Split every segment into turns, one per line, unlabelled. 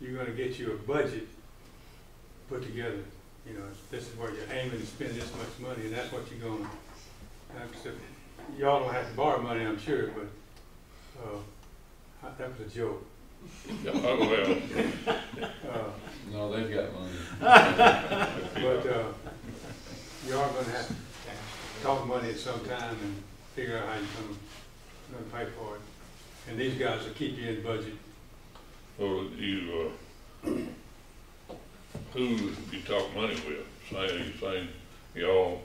you're gonna get you a budget put together, you know, this is where you're aiming to spend this much money, and that's what you're gonna, that's, the- y'all don't have to borrow money, I'm sure, but, uh, I- that was a joke.
Oh, well,
Uh,
No, they've got money.
But, uh, you are gonna have to talk money at some time and figure out how you're gonna, gonna pay for it. And these guys will keep you in budget.
well, you, uh, who you talk money with, say, you say, y'all,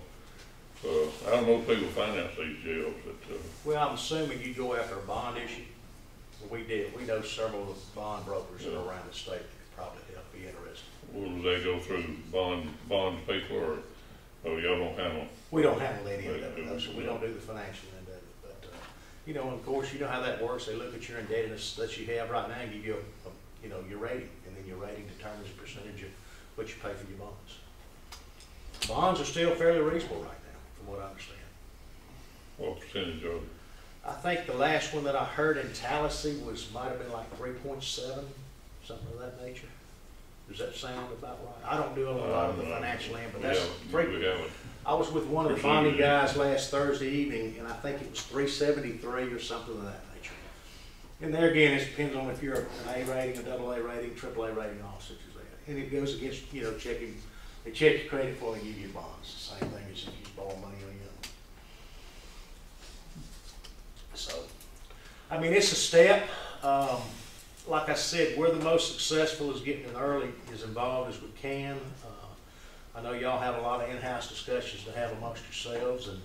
uh, I don't know if people finance these jails, but, uh,
Well, I'm assuming you go after a bond issue. We did, we know several of the bond brokers that are around the state that could probably help, be interested.
will they go through bond, bond people, or, or y'all don't handle?
We don't handle any of that, though, so we don't do the financial end of it, but, uh, you know, and of course, you know how that works, they look at your indebtedness that you have right now, and give you, a- a, you know, your rating, and then your rating determines the percentage of what you pay for your bonds. Bonds are still fairly reasonable right now, from what I understand.
What percentage of,
I think the last one that I heard in Tallahassee was, might have been like three point seven, something of that nature. Does that sound about right? I don't do a lot of the
Um,
financial end, but
we
that's
have,
three,
we haven't,
I was with one of the bonding guys last Thursday evening, and I think it was three seventy-three or something of that nature. And there again, it depends on if you're an A rating, a double A rating, triple A rating, all such as that. And it goes against, you know, checking, they check your credit before they give you bonds, the same thing as if you borrow money on your own. So, I mean, it's a step, um, like I said, we're the most successful is getting as early, as involved as we can. Uh, I know y'all have a lot of in-house discussions to have amongst yourselves, and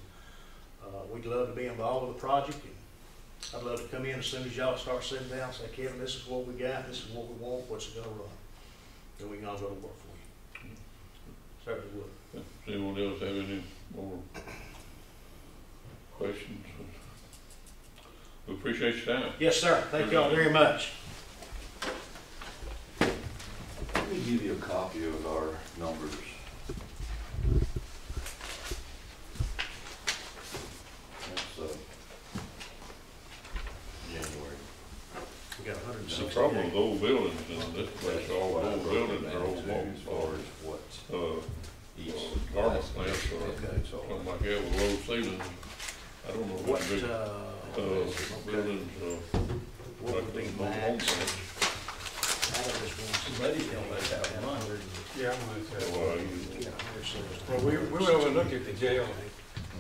uh, we'd love to be involved with the project. and I'd love to come in as soon as y'all start sitting down, say, Kevin, this is what we got, this is what we want, what's it gonna run? Then we can all go to work for you. Certainly would.
does anyone else have any more questions? We appreciate your time.
Yes, sir, thank y'all very much.
Let me give you a copy of our numbers. That's, uh, January.
We got a hundred and
The
sixty
problem with
days.
old buildings in this place, all old
That's what I broke it
buildings are
down
old
to
walls,
As far
or,
as what
uh,
each.
garment
last
plants
district
or-
includes are.
something like that with low ceilings. I don't know
What,
what big, uh,
uh, okay,
buildings, uh,
what
like
would be
those old home
max?
plants.
I don't just want to- Got a hundred and-
Yeah, I'm gonna say.
Well, you-
got a hundred and sixty.
Well, we, we overlooked at the jail,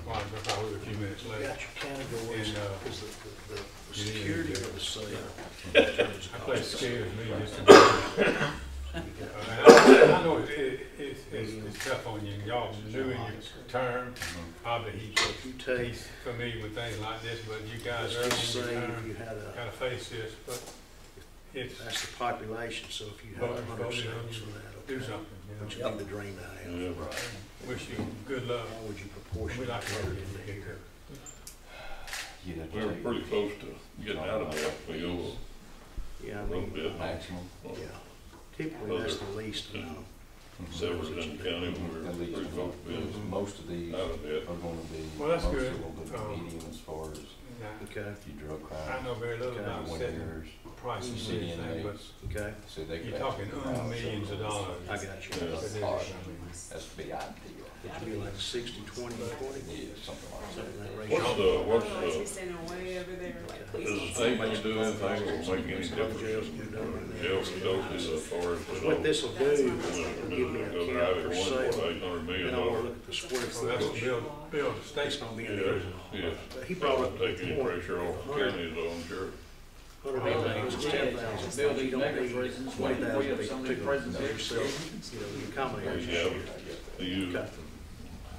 well, I thought we were a few minutes
Got
late.
your categories,
And, uh,
because the, the, the
you need to
security
do
of the sale.
I play scared me just. a- And I I know it, it, it's, it's it's tough on you, and y'all new in your term, probably he,
So if you take,
he's familiar with things like this, but you guys
let's
are
just
early
say
in your
if
term.
you had a,
gotta face this, but it's,
that's the population, so if you had a
Vote-
hundred
voted on
sales
you.
for that,
do
okay.
something,
But
you
you
know.
need to drain that
Yeah,
out.
right.
Wish you good luck.
How would you proportion
We'd
that
like to
in
get it
here?
You'd have to
we were
take
pretty close to getting out of that field a
Yeah, I
little
mean,
bit.
Maximum.
yeah, typically that's the least amount.
Mm-hmm. Several in the county, we were
At least, Mm-hmm.
pretty close to being
most of these
out
are
of that.
gonna be,
Well, that's
most of
good.
them will
Um,
be medium as far as if
And
Okay,
you drug
I- I
crime,
know very little about
one
setting
years,
prices and
city
anything, but
inmates,
okay,
so they could.
you're talking
actually
um,
allow
millions of
several
dollars.
I got you.
Yeah.
That's hard, that's big idea,
It'd be like sixty, twenty, twenty,
yeah, something like
something in that
What's
ratio.
the, what's
Otherwise, we
the,
send them way over there, like, please
does the
don't.
state gonna do anything or make any
Some jails
difference? uh,
do that.
Jail facilities as far as. uh,
Because What this'll do, is it'll give me a count for sale, then I wanna
dollars.
look at the square
So that's what
footage.
build, build the
It's
state.
gonna be in
Yes,
there.
yes.
But He brought up.
Take any pressure off
Hundred-
counties, I'm sure.
hundred buildings, ten thousand,
Build
you
these
don't
mega
need
prisons,
twenty
when we
thousand
have so many
people
prisons
to
here.
yourself, you know, you accommodate
Yeah.
yourself.
that. I get
Do
that.
you,
Okay.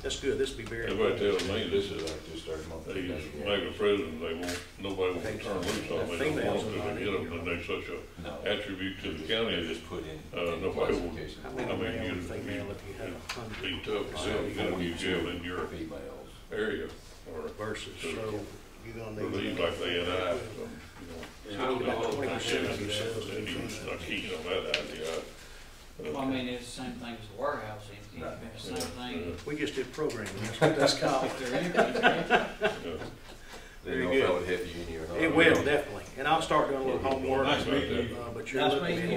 That's good, this'll be very.
everybody tells me this
So
is,
like just our monthly
these
budget.
mega prisons, they won't, nobody wants to turn loose on them, they don't want to, they get them, and they such a
No.
attribute to the
They
county,
just put in.
uh, nobody will-
classification.
I mean,
I mean,
male
you-
and female, if you had a
be
hundred
tough, to sell. you gotta be jail in your
Females.
area, or
versus, so you're gonna need.
relieved like they and I, so, you know.
Yeah, I don't know.
About twenty percent of yourself.
And he's not keen on that idea.
Well, I mean, it's the same thing as warehousing, you know, it's the same thing.
We just did programming, that's what that's called.
If there anything,
Yeah.
They don't
Very
know if that would help you any or not.
It will, definitely, and I'll start doing a little homework,
Nice
uh,
meeting you.
but you're
Nice
looking
meeting
at
you.